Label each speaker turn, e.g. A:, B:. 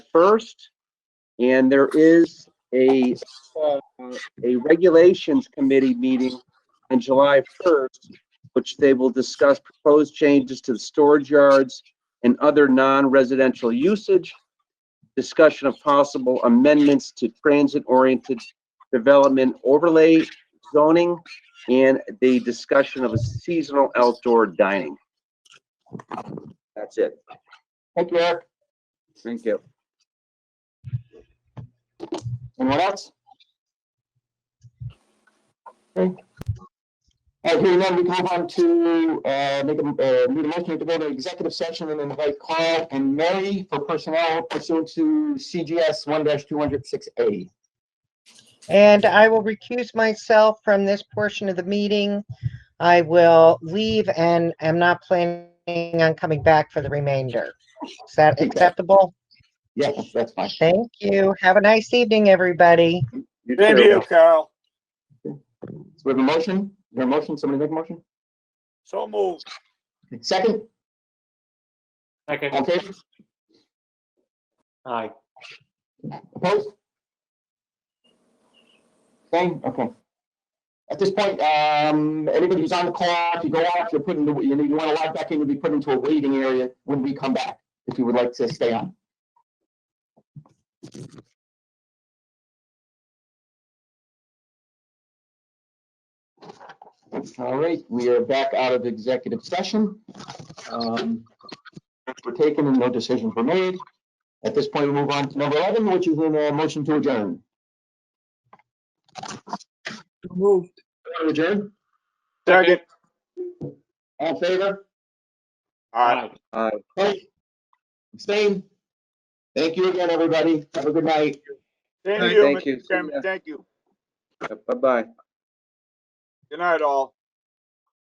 A: first. And there is a, uh, a regulations committee meeting on July first, which they will discuss proposed changes to the storage yards and other non-residential usage, discussion of possible amendments to transit-oriented development overlay zoning, and the discussion of a seasonal outdoor dining. That's it.
B: Thank you, Eric.
A: Thank you.
B: Anyone else? Okay. All right, hearing none, we move on to, uh, make a, uh, need a motion to go to executive session and invite Carl and Mary for personnel pursuant to CGS one two hundred six A.
C: And I will recuse myself from this portion of the meeting. I will leave and am not planning on coming back for the remainder. Is that
B: Okay.
C: acceptable?
B: Yes, that's fine.
C: Thank you. Have a nice evening, everybody.
A: You
D: Thank
A: too.
D: you, Carl.
B: So we have a motion, Is there a motion, somebody make a motion?
D: So moved.
B: Second, all
E: Second,
B: in favor?
E: aye.
B: Opposed? Okay, okay. At this point, um, anybody who's on the call, if you go off, you're put into, you know, you wanna log back in, you'll be put into a waiting area when we come back, if you would like to stay on. All right, we are back out of executive session. Um, Steps were taken and no decisions were made. At this point, we move on to number 11, which is a motion to adjourn.
F: Moved.
B: Adjourn,
D: Second.
B: all in favor?
D: Aye.
B: Aye. Abstain? Thank you again, everybody. Have a good night.
D: Thank
A: Thank
D: you,
A: you.
D: Mr. Chairman. Thank you.
A: Bye-bye.
D: Good night, all.